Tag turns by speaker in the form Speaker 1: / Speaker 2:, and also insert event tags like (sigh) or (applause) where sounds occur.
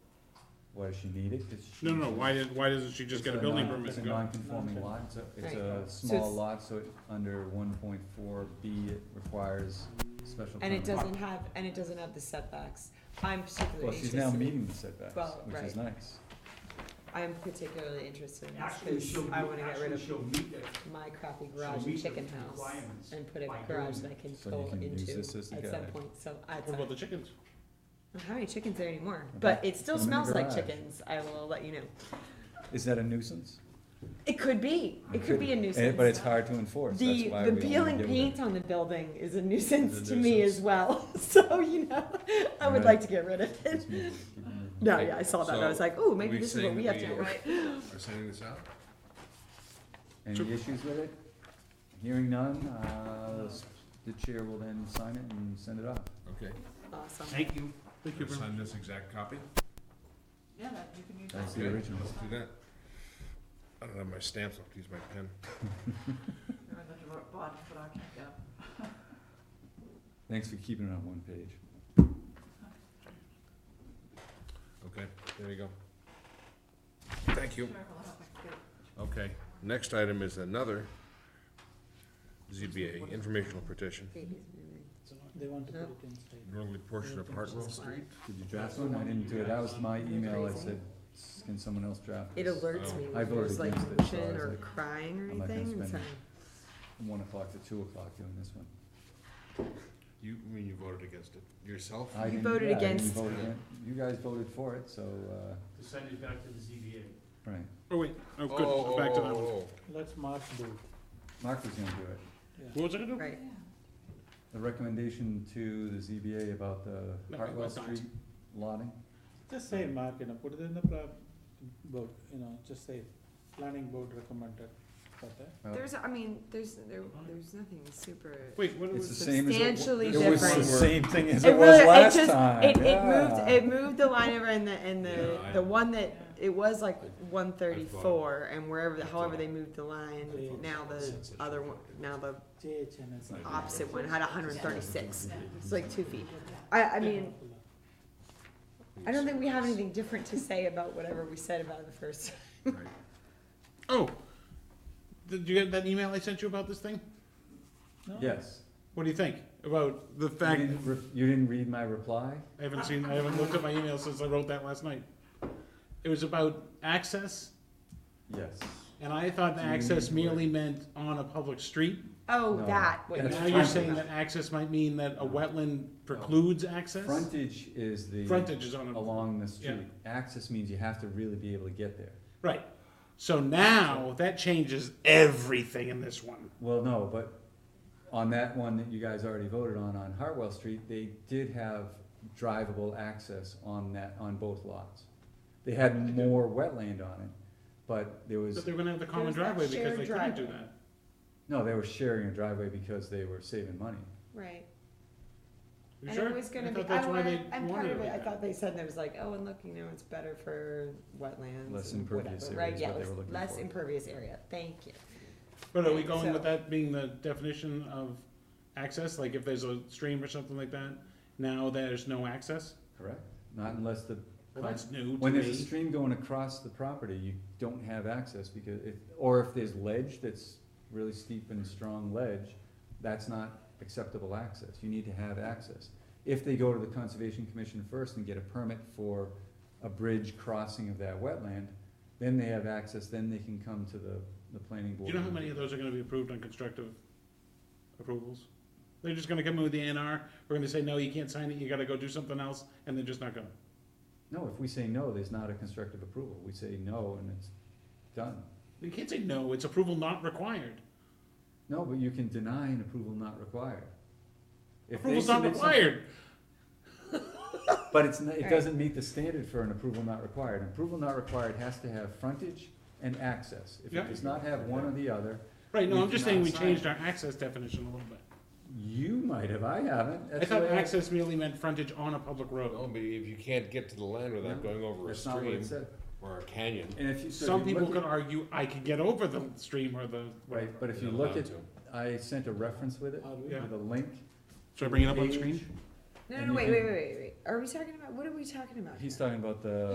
Speaker 1: What, does she need it? Does she-
Speaker 2: No, no, why did, why doesn't she just
Speaker 1: It's
Speaker 2: get a building
Speaker 1: non-
Speaker 2: permit
Speaker 1: It's a
Speaker 2: and go?
Speaker 1: non-conforming lot, so it's
Speaker 3: Right.
Speaker 1: a
Speaker 3: So
Speaker 1: small
Speaker 3: it's-
Speaker 1: lot, so it, under one point four B, it requires special
Speaker 3: And
Speaker 1: permit.
Speaker 3: it doesn't have, and it doesn't have the setbacks. I'm
Speaker 1: Well,
Speaker 3: particularly
Speaker 1: she's now
Speaker 3: interested,
Speaker 1: meeting the setbacks,
Speaker 3: Well,
Speaker 1: which is
Speaker 3: right.
Speaker 1: nice.
Speaker 3: I'm particularly interested in
Speaker 4: Actually,
Speaker 3: this,
Speaker 4: she'll,
Speaker 3: because
Speaker 4: meet-
Speaker 3: I wanna get rid
Speaker 4: actually,
Speaker 3: of
Speaker 4: she'll meet that,
Speaker 3: my crappy
Speaker 4: she'll
Speaker 3: garage and
Speaker 4: meet the
Speaker 3: chicken house
Speaker 4: requirements.
Speaker 3: and put a
Speaker 4: by
Speaker 3: garage
Speaker 4: doing
Speaker 3: that I can
Speaker 1: So you
Speaker 3: go
Speaker 1: can use
Speaker 3: into
Speaker 1: this as the
Speaker 3: at some
Speaker 1: guy.
Speaker 3: point, so I,
Speaker 2: What about the chickens?
Speaker 3: how many chickens there anymore?
Speaker 1: Okay.
Speaker 3: But it still
Speaker 1: Put 'em in the
Speaker 3: smells like
Speaker 1: garage.
Speaker 3: chickens, I will let you know.
Speaker 1: Is that a nuisance?
Speaker 3: It could be, it could be a
Speaker 1: Eh,
Speaker 3: nuisance.
Speaker 1: But it's hard to enforce, that's
Speaker 3: The,
Speaker 1: why we
Speaker 3: the
Speaker 1: only
Speaker 3: peel and
Speaker 1: deal with
Speaker 3: paint
Speaker 1: it.
Speaker 3: on the building is a nuisance
Speaker 1: It's a
Speaker 3: to me as
Speaker 1: nuisance.
Speaker 3: well, (laughs) so, you know, I would
Speaker 1: Alright.
Speaker 3: like to get rid of it.
Speaker 1: Just move it, keep it moving.
Speaker 3: No, yeah, I saw that, and I was
Speaker 5: So,
Speaker 3: like, ooh, maybe
Speaker 5: we
Speaker 3: this is what
Speaker 5: saying
Speaker 3: we
Speaker 5: that
Speaker 3: have to
Speaker 5: we-
Speaker 3: do.
Speaker 5: Are sending this out?
Speaker 2: Sure.
Speaker 1: Any issues with it? Hearing none, uh, the s- the chair will then sign it and send it off.
Speaker 5: Okay.
Speaker 3: (laughs) Awesome.
Speaker 4: Thank you.
Speaker 2: Thank you very much.
Speaker 5: Sign this exact copy?
Speaker 6: Yeah, that, you can use
Speaker 1: That's
Speaker 6: that.
Speaker 1: the
Speaker 5: Okay,
Speaker 1: original.
Speaker 5: Let's do that. I don't have my stamps, I'll have to use my pen.
Speaker 6: I'm going to write bond, but I can't get 'em.
Speaker 1: Thanks for keeping it on one page.
Speaker 5: Okay, there you go. Thank you.
Speaker 6: Sure, I'll have to get
Speaker 5: Okay, next item is another ZBA informational petition.
Speaker 4: They want
Speaker 3: to put it
Speaker 5: Northerly portion of Hartwell Street.
Speaker 1: Did you draft one? I didn't do it. That was my email. I said, "S- can someone else draft
Speaker 3: It
Speaker 1: this?
Speaker 3: alerts
Speaker 5: Oh.
Speaker 3: me
Speaker 1: I
Speaker 3: when there's
Speaker 1: voted
Speaker 3: like
Speaker 1: against it, so I
Speaker 3: motion
Speaker 1: was
Speaker 3: or
Speaker 1: like,
Speaker 3: crying or
Speaker 1: I'm not gonna
Speaker 3: anything, so.
Speaker 1: spend From one o'clock to two o'clock doing this one.
Speaker 5: You, I mean you voted against it yourself?
Speaker 1: I
Speaker 3: You
Speaker 1: didn't-
Speaker 3: voted
Speaker 1: yeah, I didn't
Speaker 3: against-
Speaker 1: vote again- You guys voted for it, so, uh,
Speaker 4: To send it back to the ZBA.
Speaker 1: right.
Speaker 2: Oh, wait, oh,
Speaker 5: Oh,
Speaker 2: good, back to that
Speaker 5: oh,
Speaker 2: one.
Speaker 5: oh,
Speaker 4: Let's mark the.
Speaker 1: Mark was gonna do it.
Speaker 2: What was I gonna do?
Speaker 3: Right,
Speaker 1: The recommendation to the ZBA about the
Speaker 2: No,
Speaker 1: Hartwell
Speaker 2: about that.
Speaker 1: Street lotting.
Speaker 4: Just say mark, you know, put it in the plan, board, you know, just say, planning board recommended,
Speaker 1: Well,
Speaker 3: there's, I mean, there's, there, there's nothing super
Speaker 2: Wait, what
Speaker 1: It's the
Speaker 2: was,
Speaker 1: same as it wa-
Speaker 3: substantially
Speaker 1: it
Speaker 3: different.
Speaker 1: was the same thing as
Speaker 4: (laughs)
Speaker 3: It
Speaker 1: it was
Speaker 3: really- it
Speaker 1: last
Speaker 3: just-
Speaker 1: time.
Speaker 3: It, it moved,
Speaker 1: Yeah.
Speaker 3: it moved the line over and the, and the,
Speaker 5: Yeah, I-
Speaker 3: the one that, it was like one thirty-four and wherever, the-
Speaker 5: I
Speaker 3: however
Speaker 5: thought-
Speaker 3: they moved the line,
Speaker 4: Yeah.
Speaker 3: now the
Speaker 5: Since it's
Speaker 3: other
Speaker 5: short.
Speaker 3: one, now the
Speaker 4: JHN is.
Speaker 3: opposite one had hundred and thirty-six. It's like two feet. I, I mean, I don't think we have anything different to say about whatever we said about it the first.
Speaker 5: Right.
Speaker 2: oh, did you get that email I sent you about this thing?
Speaker 1: Yes.
Speaker 2: What do you think about the
Speaker 1: You
Speaker 2: fact,
Speaker 1: didn't, re- you didn't read my reply?
Speaker 2: I haven't seen, I haven't looked at my email since I wrote that last night. It was about access,
Speaker 1: Yes.
Speaker 2: and I thought that
Speaker 1: Do you
Speaker 2: access
Speaker 1: need to
Speaker 2: merely meant on a public street.
Speaker 3: Oh,
Speaker 1: No.
Speaker 3: that, what
Speaker 1: Yeah,
Speaker 3: you
Speaker 1: That's
Speaker 2: Now you're
Speaker 1: fine.
Speaker 2: saying that access might mean that a wetland precludes access?
Speaker 1: Frontage is the.
Speaker 2: Frontage is on a,
Speaker 1: Along the street. Access means you have to really be able to get there.
Speaker 2: right. So now, that changes everything in this one.
Speaker 1: Well, no, but on that one that you guys already voted on, on Hartwell Street, they did have drivable access on that, on both lots. They had more wetland on it, but there
Speaker 2: But
Speaker 1: was,
Speaker 2: they're gonna have the common
Speaker 3: There's that
Speaker 2: driveway because
Speaker 3: shared
Speaker 2: they couldn't do
Speaker 3: driveway.
Speaker 2: that.
Speaker 1: no, they were sharing a driveway because they were saving money.
Speaker 3: Right,
Speaker 2: You
Speaker 3: and
Speaker 2: sure?
Speaker 3: it was gonna
Speaker 2: I
Speaker 3: be, Oh,
Speaker 2: thought
Speaker 3: I
Speaker 2: that's why they
Speaker 3: wanted, and part
Speaker 2: wanted
Speaker 3: of it, I
Speaker 2: like that.
Speaker 3: thought they said there was like, oh, and look, you know, it's better for wetlands
Speaker 1: Less
Speaker 3: and
Speaker 1: impervious
Speaker 3: whatever,
Speaker 1: area
Speaker 3: right,
Speaker 1: is
Speaker 3: yeah,
Speaker 1: what they
Speaker 3: less-
Speaker 1: were looking
Speaker 3: less
Speaker 1: for.
Speaker 3: impervious area, thank you.
Speaker 2: But are we going
Speaker 3: So-
Speaker 2: with that being the definition of access? Like if there's a stream or something like that, now there's no access?
Speaker 1: Correct. Not unless the,
Speaker 2: Well, that's new to
Speaker 1: when there's a
Speaker 2: me.
Speaker 1: stream going across the property, you don't have access because if, or if there's ledge that's really steep and strong ledge, that's not acceptable access. You need to have access. If they go to the Conservation Commission first and get a permit for a bridge crossing of that wetland, then they have access, then they can come to the, the planning
Speaker 2: Do
Speaker 1: board.
Speaker 2: you know how many of those are gonna be approved on constructive approvals? They're just gonna come in with the ANR, we're gonna say, no, you can't sign it, you gotta go do something else, and they're just not gonna.
Speaker 1: No, if we say no, there's not a constructive approval. We say no and it's done.
Speaker 2: You can't say no, it's approval not required.
Speaker 1: No, but you can deny an approval not required. If they
Speaker 2: Approval's not
Speaker 1: submit something-
Speaker 2: required.
Speaker 1: But it's, not- it
Speaker 3: Right.
Speaker 1: doesn't meet the standard for an approval not required. An approval not required has to have frontage and access. If
Speaker 2: Yeah.
Speaker 1: it does not have one or the other,
Speaker 2: Right, no,
Speaker 1: We
Speaker 2: I'm just
Speaker 1: cannot
Speaker 2: saying we
Speaker 1: sign
Speaker 2: changed our access definition a little bit.
Speaker 1: you might have, I haven't.
Speaker 2: I
Speaker 1: That's the
Speaker 2: thought
Speaker 1: way I-
Speaker 2: access merely meant frontage on a public
Speaker 5: No,
Speaker 2: road.
Speaker 5: but if you can't get to the land without
Speaker 1: No,
Speaker 5: going over a
Speaker 1: That's not what
Speaker 5: stream
Speaker 1: it said.
Speaker 5: or a canyon.
Speaker 1: And if you, so
Speaker 2: Some
Speaker 1: if you
Speaker 2: people
Speaker 1: look
Speaker 2: could
Speaker 1: at,
Speaker 2: argue, I could get over the stream or the,
Speaker 1: right, but if you
Speaker 5: you're
Speaker 1: look
Speaker 5: allowed
Speaker 1: at,
Speaker 5: to.
Speaker 1: I sent a reference with it,
Speaker 4: Are we?
Speaker 2: Yeah.
Speaker 1: with a link.
Speaker 2: Oh, should I bring it up on the screen?
Speaker 1: page.
Speaker 3: No,
Speaker 1: And
Speaker 3: no,
Speaker 1: you
Speaker 3: wait,
Speaker 1: can-
Speaker 3: wait, wait, wait, wait, are we talking about, what are we talking about?
Speaker 1: He's
Speaker 3: here?
Speaker 1: talking about the